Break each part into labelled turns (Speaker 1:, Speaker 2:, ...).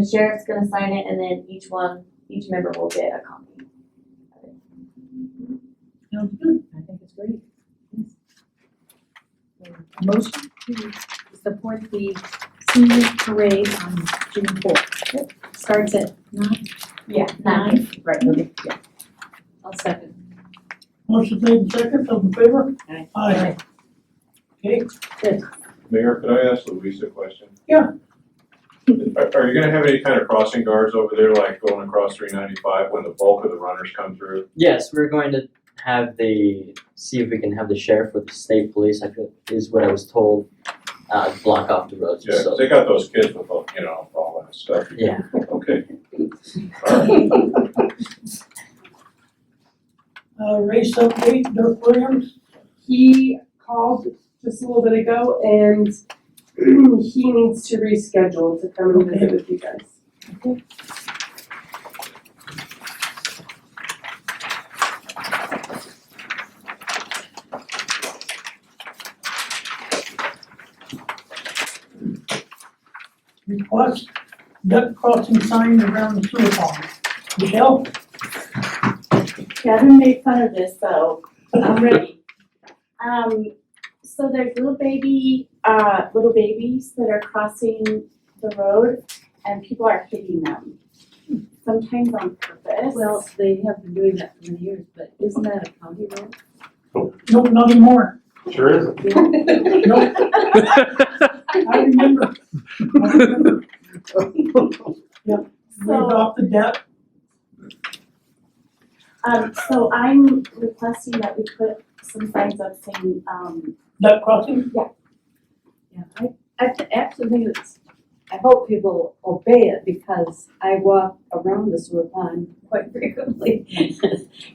Speaker 1: The sheriff's gonna sign it and then each one, each member will get a copy.
Speaker 2: Sounds good. I think it's great. Yes. A Motion to support the senior parade on June fourth. Starts at nine,
Speaker 1: Yeah.
Speaker 2: nine.
Speaker 3: Right, okay, yeah.
Speaker 2: I'll second.
Speaker 4: Motion made in second, all in favor?
Speaker 2: Aye.
Speaker 4: Aye. Okay,
Speaker 5: Mayor, could I ask Louisa a question?
Speaker 4: Yeah.
Speaker 5: Are, are you gonna have any kind of crossing guards over there, like going across three ninety-five when the bulk of the runners come through?
Speaker 6: Yes, we're going to have the, see if we can have the sheriff with the state police, I feel, is what I was told, uh, block off the roads,
Speaker 5: Yeah, 'cause
Speaker 6: so,
Speaker 5: they got those kids with, all, you know, all that stuff.
Speaker 6: yeah.
Speaker 5: Okay. All right.
Speaker 4: uh, race update, Dirk Williams,
Speaker 3: He called just a little bit ago and he needs to reschedule to come and visit with you guys.
Speaker 4: request duck crossing sign around the sewer pond. Michelle?
Speaker 1: Kevin made fun of this, so I'm ready. Um, so there's little baby, uh, little babies that are crossing the road and people are hitting them. Sometimes on purpose.
Speaker 2: Well, they have been doing that for many years, but isn't that a county road?
Speaker 4: Nope, not anymore.
Speaker 7: Sure is.
Speaker 4: Nope, I remember. I remember. We
Speaker 1: So,
Speaker 4: adopted that,
Speaker 1: um, so I'm requesting that we put some signs up saying, um,
Speaker 4: duck crossing,
Speaker 2: Yeah, I, I th- actually think it's, I hope people obey it because I walk around the sewer pond quite frequently.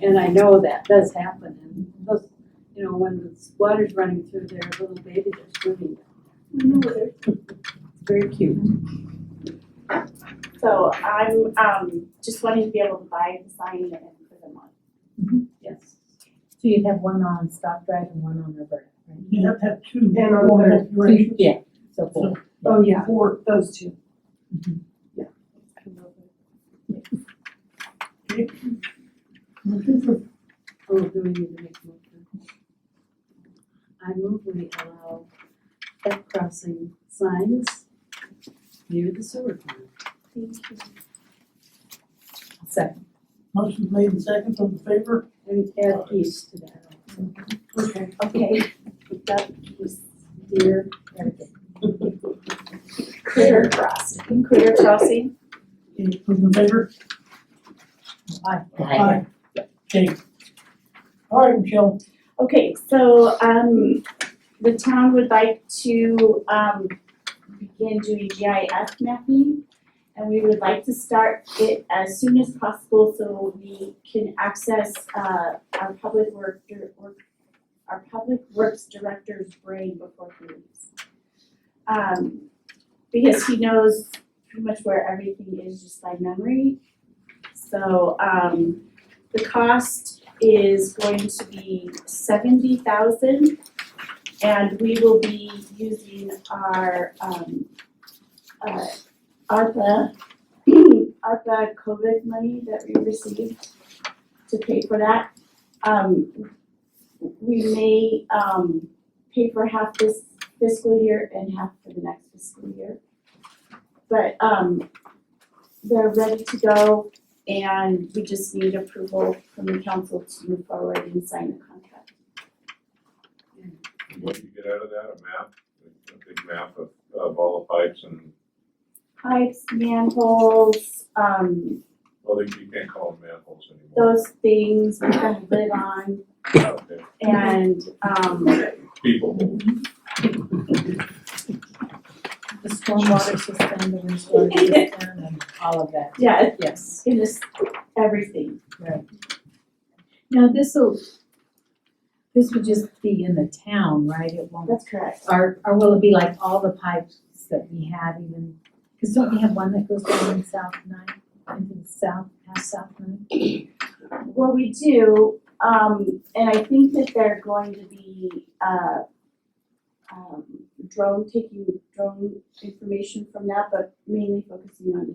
Speaker 2: And I know that does happen and those, you know, when the water's running through there, little babies are swimming. down
Speaker 1: Mm-hmm.
Speaker 2: there. It's Very cute.
Speaker 1: so I'm, um, just wanting to be able to buy the sign and put them on.
Speaker 2: Yes. So you'd have one on stop drive and one on reverse, right?
Speaker 4: you have to have two.
Speaker 3: And on
Speaker 4: going
Speaker 3: there.
Speaker 4: both directions.
Speaker 2: Yeah, so
Speaker 4: So,
Speaker 3: Oh, yeah,
Speaker 4: Four,
Speaker 3: those two.
Speaker 4: motion for
Speaker 2: Oh, do we need to make a motion? I move we allow duck crossing signs near the sewer plant.
Speaker 1: Thank you.
Speaker 2: Second.
Speaker 4: Motion made in second, all in favor?
Speaker 2: And add east to that.
Speaker 4: Okay.
Speaker 1: Okay, that was
Speaker 2: Deer, everything.
Speaker 1: critter crossing. Critter crossing.
Speaker 4: Okay, those in favor?
Speaker 2: Aye.
Speaker 4: Aye. Okay. All right, Michelle,
Speaker 1: Okay, so, um, the town would like to, um, begin doing GIS mapping. And we would like to start it as soon as possible so we can access, uh, our public work, dir- work, our public works director's brain before he leaves. Um, because he knows pretty much where everything is just by memory. So, um, the cost is going to be seventy thousand. And we will be using our um uh ARPA, ARPA COVID money that we received to pay for that. Um we may um pay for half this fiscal year and half for the next fiscal year. But um they're ready to go and we just need approval from the council to move forward and sign the contract.
Speaker 5: What do you get out of that, a map, a big map of, of all the pipes and,
Speaker 1: Pipes, manholes, um,
Speaker 5: well, they- you can't call them manholes anymore.
Speaker 1: those things we can live on
Speaker 5: Okay.
Speaker 1: and, um,
Speaker 5: People,
Speaker 2: The stormwater system, the wastewater system, and all of that,
Speaker 1: yeah,
Speaker 2: yes.
Speaker 1: it is everything.
Speaker 2: Now, this'll, this would just be in the town, right? It won't
Speaker 1: That's correct.
Speaker 2: Or, or will it be like all the pipes that we have even, cause don't we have one that goes down in South Nine, into the south, half South Nine?
Speaker 1: Well, we do, um, and I think that they're going to be, uh, um, drone, taking drone information from that, but mainly focusing on